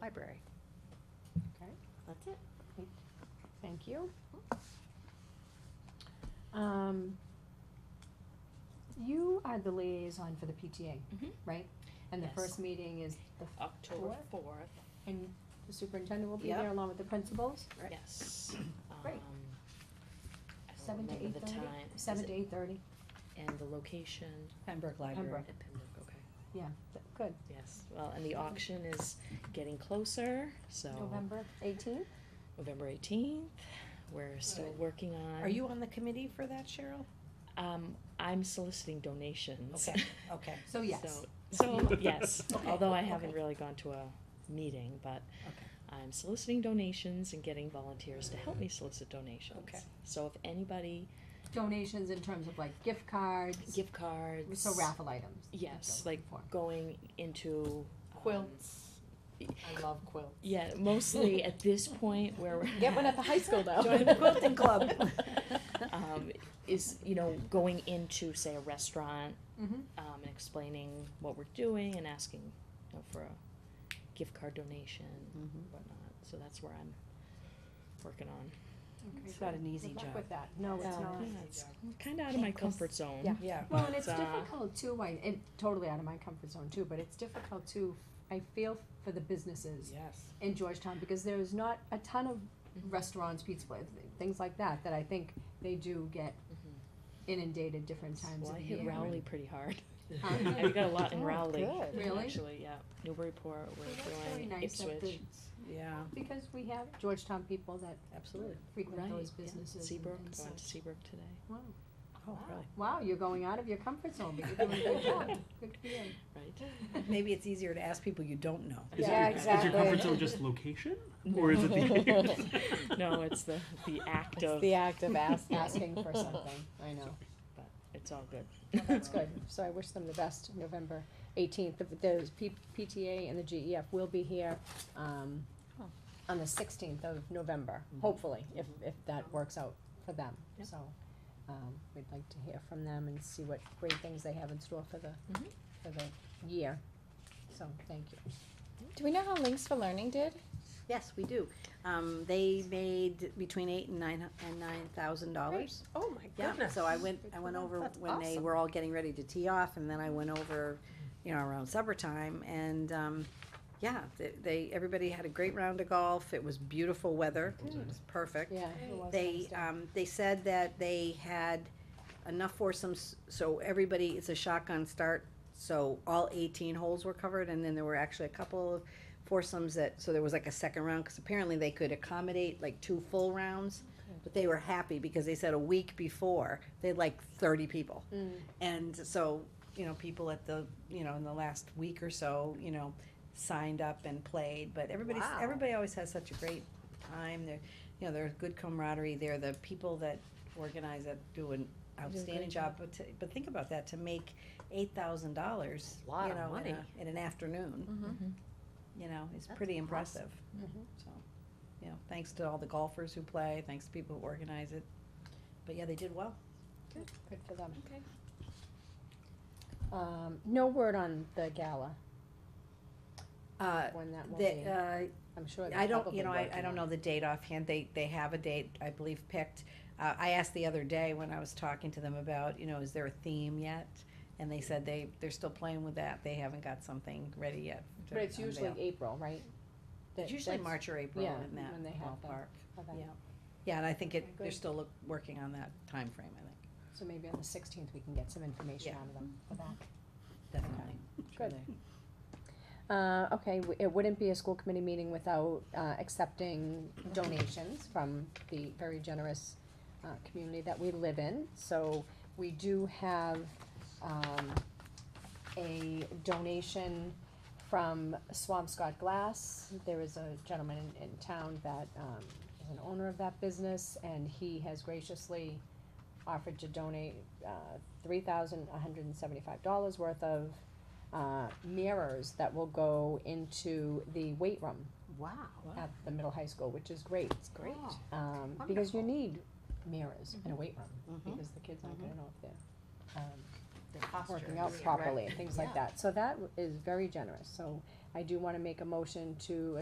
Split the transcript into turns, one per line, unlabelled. library.
Okay, that's it.
Thank you. Um, you are the liaison for the PTA,
Mhm.
right? And the
Yes.
first meeting is the, f-
October fourth,
and the superintendent will be
Yep.
there along with the principals,
yes.
Great.
Um, I don't
seven to eight
remember the
thirty?
time. Is
Seven
it-
to eight thirty,
And the location.
Pembroke
Pembroke.
Library.
At Pembroke, okay,
yeah, th- good.
yes. Well, and the auction is getting closer, so
November eighteenth?
November eighteenth. We're still
Good.
working on.
Are you on the committee for that, Cheryl?
Um, I'm soliciting donations.
Okay, okay,
So yes,
So- So, yes,
Okay,
although I haven't
okay.
really gone to a meeting, but
okay.
I'm soliciting donations and getting volunteers to help me
Mm-hmm.
solicit donations.
Okay.
So if anybody,
donations in terms of like gift cards,
gift cards.
so raffle items. is
Yes,
what I'm
like
looking
going into. um,
for. I love quilts.
Yeah, mostly at this point where we're.
Get one at the high school though.
Join the quilting club.
Um, is, you know, going into, say, a restaurant,
Mm-hmm.
um, and explaining what we're doing and asking, you know, for a gift card donation
Mm-hmm.
and
Mm-hmm.
whatnot. So that's where I'm working on.
It's not an easy
Good luck
job.
with that. No, it's
Um,
not.
yeah, it's kinda out of my comfort zone.
Yeah.
Yeah,
Well, and it's
Uh,
difficult too, I, it, totally out of my comfort zone too, but it's difficult too, I feel for the businesses
yes.
in Georgetown, because there is not a ton of
Mhm.
restaurants, pizza, places, things like that, that I think they do get
Mhm.
Mm-hmm. inundated different times
Well,
of
I
the
hit
year.
Rowley pretty hard.
Um,
I got a lot in
Oh,
Rowley.
good.
Really?
Actually, yeah. Newburyport,
Well, that's
we're
really
doing
nice that
Ipswich.
Yeah,
the- Because we have Georgetown people that
absolutely.
frequent
Right,
those
yeah.
businesses and-
Seabrook,
and
going to
such.
Seabrook today.
Wow,
Oh, really?
wow, you're going out of your comfort zone, but you're doing a good job, good for you.
Right.
Maybe it's easier to ask people you don't know.
Is
Yeah,
your, Is your
exactly.
comfort zone just location, or is it the?
No, it's the, the act
It's
of,
the act of asking.
Asking for something, I know.
but it's all good.
Well, That's good, so I wish them the best, November eighteenth, the, the P- PTA and the GEF will be here, um,
Oh. Mm-hmm.
on the sixteenth of November,
Mhm.
hopefully, if, if that works out for them,
Yep.
so, um, we'd like to hear from them and see what great things they have in store for the,
Mm-hmm.
Mhm.
for the year, so, thank you.
Do we know how Links for Learning did?
Yes, we do. Um, they made between eight and nine, hu- and nine thousand dollars.
Oh my
Yeah, so I went, I went over
That's
when they
awesome.
were all getting ready to tee off, and then I went over, you know, around supper time, and, um, yeah, they, they, everybody had a great round of golf. It was beautiful weather. It was perfect.
Yeah. it was nice
They,
to-
um, they said that they had enough foursomes, so everybody, it's a shotgun start, so all eighteen holes were covered, and then there were actually a couple of foursomes that, so there was like a second round, cause apparently they could accommodate like two full rounds, but they were happy because they said a week before, they had like thirty people.
Mm.
Mm-hmm.
And so, you know, people at the, you know, in the last week or so, you know, signed up and played, but everybody's,
Wow.
everybody always has such a great time, they're, you know, there's good camaraderie there, the people that organize that do an outstanding job, but to, but think about that, to make eight thousand dollars, you
Lot of
know, in
money.
a, in an afternoon,
Mm-hmm.
you know, is
That's
pretty impressive.
Mm-hmm.
Mhm.
So, you know, thanks to all the golfers who play, thanks to people who organize it, but yeah, they did well.
Good for them.
Okay.
Um, no word on the gala,
Uh,
when that will
they,
be,
uh,
I'm sure they're
I don't,
probably
you know, I,
working
I
on
don't
it.
know the date offhand. They, they have a date, I believe, picked. Uh, I asked the other day when I was talking to them about, you know, is there a theme yet? And they said they, they're still playing with that. They haven't got something ready yet. to
But it's usually
unveil.
April, right? That-
It's usually
that's
March or April
yeah, when
in that
they have that.
ballpark.
how that-
Yeah. Yeah, and I think it,
Okay,
they're
good.
still look, working on that time frame. I think,
So maybe on the sixteenth, we can get some information
Yeah.
out of them for that.
definitely. Sure
Good.
they-
Uh, okay, w- it wouldn't be a school committee meeting without, uh, accepting donations from the very generous, uh, community that we live in. So we do have, um, a donation from Swampscott Glass. There is a gentleman in, in town that, um, is an owner of that business and he has graciously offered to donate, uh, three thousand one hundred and seventy-five dollars worth of, uh, mirrors that will go into the weight room
Wow.
at the middle high school, which is great. It's
great.
Um, because you
Wonderful.
need mirrors in a weight room,
Mhm.
because the kids aren't gonna know if they're, um,
Posture.
working out
Right.
properly and things like
Yeah.
that. So that w- is very generous, so I do wanna make a motion to